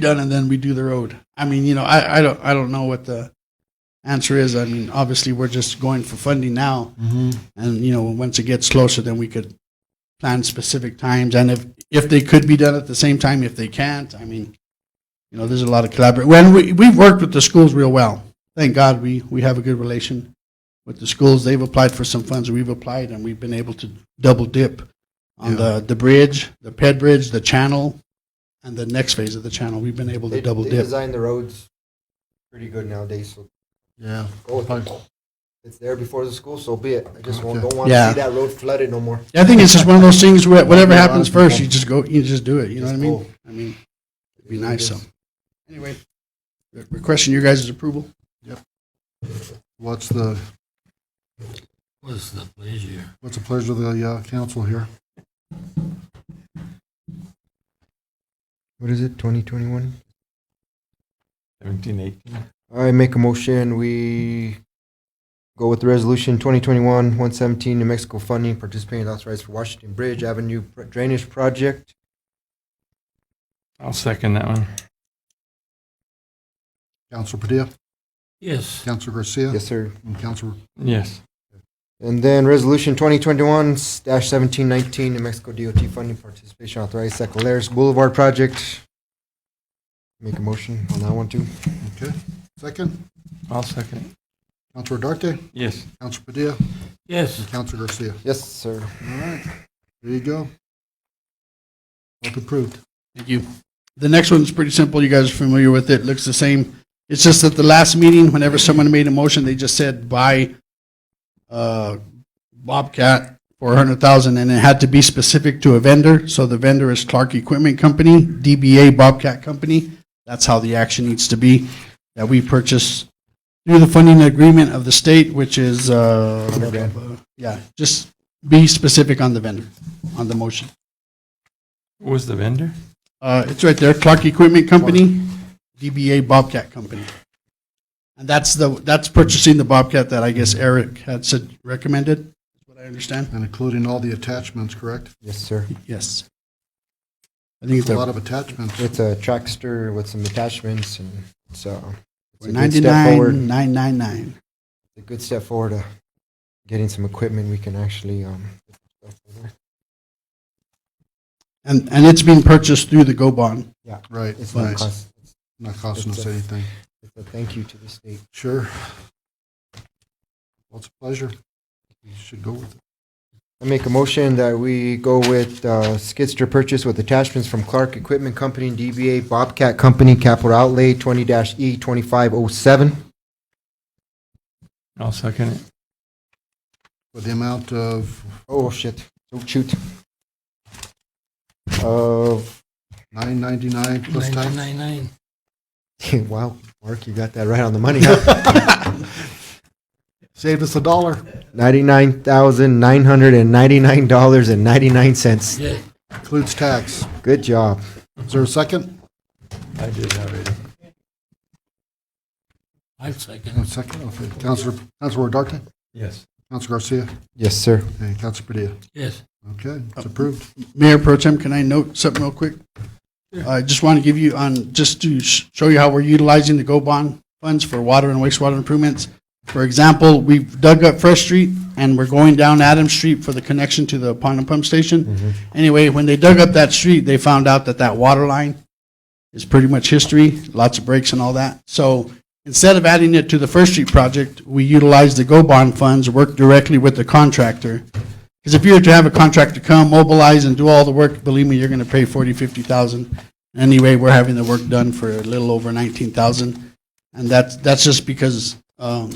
done and then we do the road. I mean, you know, I, I don't I don't know what the answer is. I mean, obviously we're just going for funding now, Mm-hmm. and you know, once it gets closer, then we could plan specific times and if if they could be done at the same time, if they can't, I mean, you know, there's a lot of collaborate. When we we've worked with the schools real well. Thank God we we have a good relation with the schools. They've applied for some funds, we've applied, and we've been able to double dip on the the bridge, the ped bridge, the channel. And the next phase of the channel, we've been able to They, double they dip. design the roads pretty good nowadays, so Yeah. go with it. It's there before the school, so be it. I just won't, don't want to Yeah. see that road flooded no more. I think it's just one of those things where whatever Yeah, a lot happens of first, people- you just go, you just do it. You know what I Just mean? go. I mean, it'd be nice. So, anyway, re- requesting your guys' approval. What's the, What's the pleasure? what's the pleasure of the uh, council here? What is it, 2021? 17, 18. All right, make a motion. We go with the resolution 2021-117, New Mexico funding participating authorized for Washington Bridge Avenue Drainage Project. I'll second that one. Council Padilla, Yes, Council Garcia, Yes, sir. and Council Yes. And then resolution 2021-1719, New Mexico DOT funding participation authorized Sacaleras Boulevard Project. Make a motion on that one too. Okay. Second, I'll second Council Darte, it. Yes. Council Padilla, yes. Council Garcia. Yes, sir. All right. There you go. Both approved. Thank you. The next one's pretty simple. You guys are familiar with it. Looks the same. It's just that the last meeting, whenever someone made a motion, they just said buy uh, Bobcat for a hundred thousand, and it had to be specific to a vendor. So the vendor is Clark Equipment Company, DBA Bobcat Company. That's how the action needs to be. That we purchase through the funding agreement of the state, which is uh, yeah. Just be specific on the vendor on the motion. What was the vendor? Uh, it's right there, Clark Equipment Company, DBA Bobcat Company. And that's the, that's purchasing the Bobcat that I guess Eric had said recommended, is what I understand. And including all the attachments, correct? Yes, sir. Yes. I think It's it's a lot a of attachments. It's a trackster with some attachments and so it's a good step forward. ninety-nine, nine, nine, nine. It's a good step forward to getting some equipment we can actually, um, And, and it's being purchased through the Go Bond. Right, it's not right. cost, Not costing us anything. it's a thank you to the state. Sure. Well, it's a pleasure. You should go with it. I make a motion that we go with uh, skidster purchase with attachments from Clark Equipment Company and DBA Bobcat Company, capital outlay E 20-E2507. I'll second it. For the amount of Oh, shit. Oh, shoot. Uh, Of, nine ninety-nine plus tax? Nine nine. wow, Mark, you got that right on the money. huh? Saved us a dollar. $99,999.99. Yeah, Includes tax. Good job. Is there a second? I did already. I second. No, second, okay. Counselor, Counselor Darte, Yes. Counselor Garcia, Yes, sir. and Counselor Padilla. Yes, Okay, it's approved. Mayor Pro Tem, can I note something real quick? I just want to give you on, just to sh- show you how we're utilizing the GO bond funds for water and wastewater improvements. For example, we've dug up Fresh Street and we're going down Adams Street for the connection to the pond and pump station. Anyway, when they dug up that street, they found out that that water line is pretty much history, lots of breaks and all that. So instead of adding it to the First Street project, we utilized the GO bond funds, worked directly with the contractor. Because if you were to have a contractor come, mobilize, and do all the work, believe me, you're going to pay forty, fifty thousand. Anyway, we're having the work done for a little over nineteen thousand, and that's that's just because um,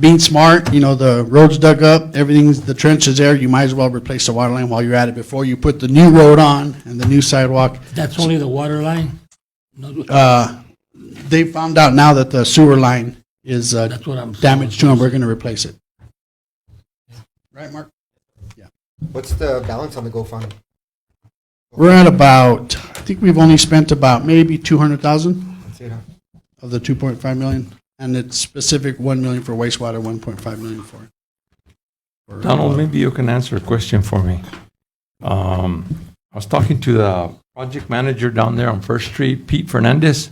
being smart, you know, the roads dug up, everything's the trench is there. You might as well replace the water line while you're at it before you put the new road on and the new sidewalk. that's only the water line? Not the- Uh, they found out now that the sewer line is uh, That's what I'm. damaged too, and we're going to replace it. Right, Mark? What's the balance on the GoFundMe? We're at about, I think we've only spent about maybe 200,000 That's it, huh? of the 2.5 million, and it's specific 1 million for wastewater, 1.5 million for. for Donald, water. maybe you can answer a question for me. Um, I was talking to the Project manager down there on First Street, Pete Fernandez.